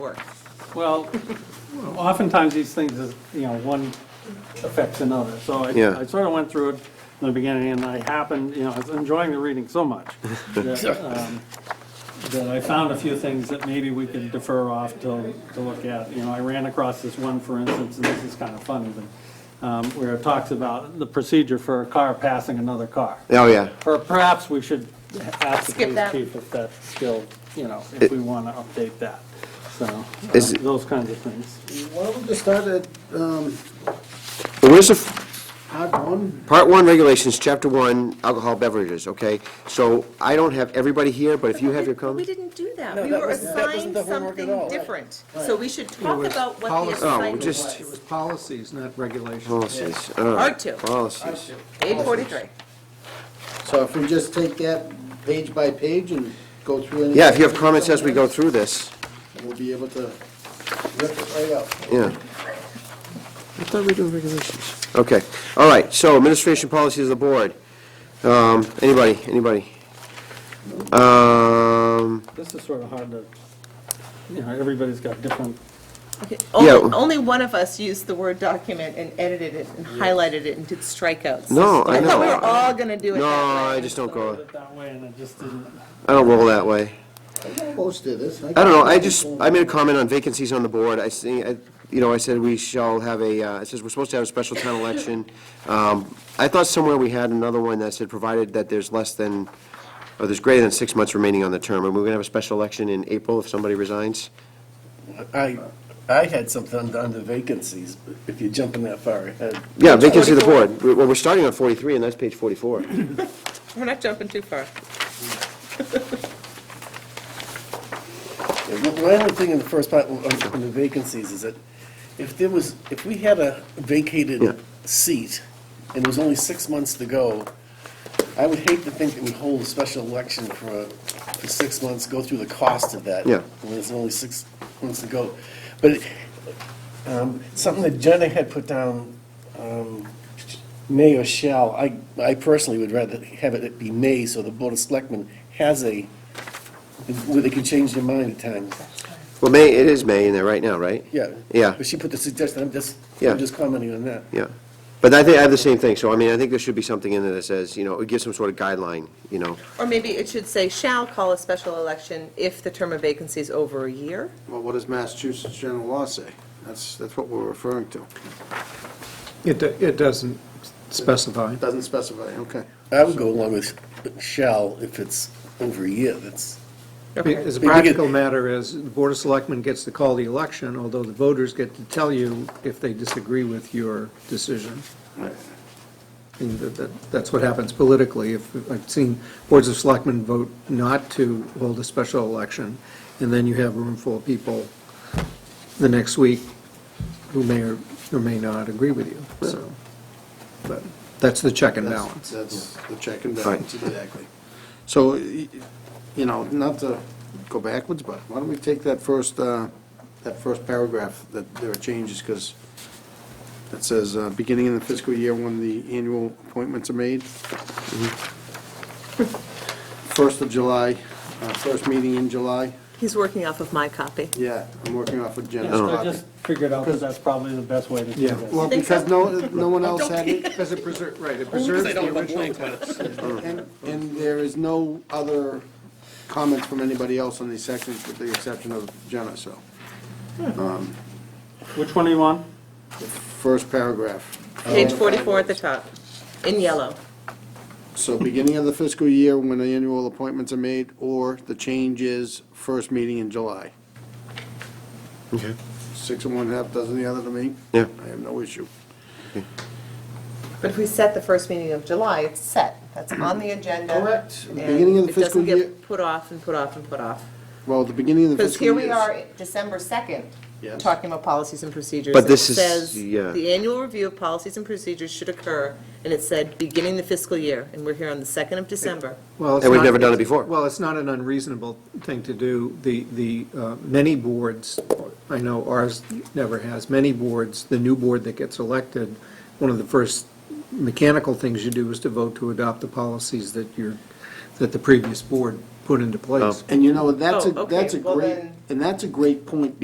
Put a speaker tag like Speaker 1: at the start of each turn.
Speaker 1: work.
Speaker 2: Well, oftentimes these things is, you know, one affects another. So I,
Speaker 3: Yeah.
Speaker 2: I sort of went through it in the beginning and I happened, you know, I was enjoying the reading so much that, um, that I found a few things that maybe we could defer off till, to look at. You know, I ran across this one, for instance, and this is kind of funny, but, um, where it talks about the procedure for a car passing another car.
Speaker 3: Oh, yeah.
Speaker 2: Or perhaps we should ask the
Speaker 1: Skip
Speaker 2: police
Speaker 1: that.
Speaker 2: chief if that's still, you know, if we want to update that. So, uh,
Speaker 3: Is it-
Speaker 2: those kinds of things.
Speaker 4: Why don't we just start at um,
Speaker 3: But where's the, f-
Speaker 4: part one?
Speaker 3: part one regulations, chapter one, alcohol beverages, okay? So I don't have everybody here, but if you have your
Speaker 1: We
Speaker 3: comments.
Speaker 1: didn't do that.
Speaker 4: No,
Speaker 1: We
Speaker 4: that
Speaker 1: were
Speaker 4: wasn't- that wasn't
Speaker 1: assigned
Speaker 4: the homework at
Speaker 1: something
Speaker 4: all.
Speaker 1: different. So we should talk about what the
Speaker 5: policy.
Speaker 3: Oh,
Speaker 1: assignment
Speaker 3: just-
Speaker 1: was.
Speaker 5: It was policies, not regulations.
Speaker 3: Policies, all right.
Speaker 1: Part two.
Speaker 3: Policies.
Speaker 1: Page forty-three.
Speaker 4: So if we just take that page by page and go through. any-
Speaker 3: Yeah, if you have comments as we go through this,
Speaker 4: We'll be able to rip it right up.
Speaker 3: yeah. I thought we were doing regulations. Okay, all right, so administration policies of the board. Um, anybody, anybody? Um,
Speaker 2: This is sort of hard to, you know, everybody's got different,
Speaker 1: Okay,
Speaker 3: Yeah.
Speaker 1: Only, only one of us used the word document and edited it and highlighted it and did strikeouts.
Speaker 3: No, I
Speaker 1: thought we
Speaker 3: know.
Speaker 1: were all gonna do it
Speaker 3: no,
Speaker 1: that way.
Speaker 3: I just don't
Speaker 2: put
Speaker 3: go,
Speaker 2: it that way, and it just didn't,
Speaker 3: I don't roll that way.
Speaker 4: Close to this.
Speaker 3: I don't know, I just, I made a comment on vacancies on the board, I see, I- you know, I said we shall have a, uh, it says we're supposed to have a special town election. Um, I thought somewhere we had another one that said, provided that there's less than, or there's greater than six months remaining on the term, and we're gonna have a special election in April if somebody resigns?
Speaker 6: I, I had something under- under vacancies, but if you're jumping that far ahead.
Speaker 3: Yeah, vacancy of the board, We- well, we're starting on forty-three, and that's page forty-four.
Speaker 1: We're not jumping too far.
Speaker 6: My only thing in the first part, on on the vacancies, is that if there was, if we had a
Speaker 3: Yeah.
Speaker 6: vacated seat, and there was only six months to go, I would hate to think that we hold a special election for, for six months, go through the cost of that.
Speaker 3: Yeah.
Speaker 6: When there's only six months to go. But it- um, something that Jenna had put down, um, may or shall, I, I personally would rather have it be may, so the Board of Selectmen has a, where they can change their mind at times.
Speaker 3: Well, May, it is May in there right now, right?
Speaker 6: Yeah.
Speaker 3: Yeah.
Speaker 6: But she put the suggestion, I'm just,
Speaker 3: Yeah.
Speaker 6: I'm just commenting on that.
Speaker 3: Yeah, but I think, I have the same thing, so I mean, I think there should be something in there that says, you know, it gives some sort of guideline, you know?
Speaker 1: Or maybe it should say shall call a special election if the term of vacancy is over a year.
Speaker 4: Well, what does Massachusetts general law say? That's, that's what we're referring to.
Speaker 5: It, do- it doesn't specify.
Speaker 4: Doesn't specify, okay.
Speaker 6: I would go along with shall if it's over a year, that's,
Speaker 5: I mean, As a
Speaker 6: We get-
Speaker 5: practical matter is, the Board of Selectmen gets to call the election, although the voters get to tell you if they disagree with your decision. And that- that- that's what happens politically. If, I've seen boards of selectmen vote not to hold a special election, and then you have a room full of people the next week who may or, or may not agree with you, so. But that's the check and
Speaker 4: That's-
Speaker 5: balance.
Speaker 4: That's the check and balance,
Speaker 3: Right.
Speaker 4: exactly. So, y- you know, not to go backwards, but why don't we take that first, uh, that first paragraph, that there are changes, because it says, uh, beginning in the fiscal year when the annual appointments are made. First of July, uh, first meeting in July.
Speaker 1: He's working off of my copy.
Speaker 4: Yeah, I'm working off of Jen's
Speaker 2: I
Speaker 4: copy.
Speaker 2: just figured out that that's probably the best way to do
Speaker 5: Yeah.
Speaker 2: this.
Speaker 4: Well, because no, no one else had it.
Speaker 5: As it preserves, right, it preserves the original
Speaker 4: And, and there is no other comments from anybody else on these sections with the exception of Jenna, so.
Speaker 2: Which one do you want?
Speaker 4: First paragraph.
Speaker 1: Page
Speaker 4: Oh.
Speaker 1: forty-four at the top, in yellow.
Speaker 4: So beginning of the fiscal year when the annual appointments are made, or the change is first meeting in July.
Speaker 3: Okay.
Speaker 4: Six and one half dozen the other to me.
Speaker 3: Yeah.
Speaker 4: I have no issue.
Speaker 1: But if we set the first meeting of July, it's set. That's on the agenda.
Speaker 4: Correct.
Speaker 1: And
Speaker 4: Beginning of the fiscal
Speaker 1: It
Speaker 4: year-
Speaker 1: doesn't get put off and put off and put off.
Speaker 4: Well, the beginning of the
Speaker 1: Because
Speaker 4: fiscal
Speaker 1: here
Speaker 4: year.
Speaker 1: we
Speaker 4: is-
Speaker 1: are, December 2nd,
Speaker 4: Yes.
Speaker 1: talking about policies and procedures.
Speaker 3: But
Speaker 1: and
Speaker 3: this
Speaker 1: it
Speaker 3: is-
Speaker 1: says,
Speaker 3: yeah.
Speaker 1: The annual review of policies and procedures should occur, and it said, beginning the fiscal year, and we're here on the 2nd of December.
Speaker 5: Well, it's
Speaker 3: And we've
Speaker 5: not-
Speaker 3: never done it before.
Speaker 5: Well, it's not an unreasonable thing to do. The, the, uh, many boards, I know ours never has, many boards, the new board that gets elected, one of the first mechanical things you do is to vote to adopt the policies that you're, that the previous board put into place.
Speaker 4: And you know, that's a,
Speaker 1: Oh, okay,
Speaker 4: that's a
Speaker 1: well
Speaker 4: great,
Speaker 1: then-
Speaker 4: and that's a great point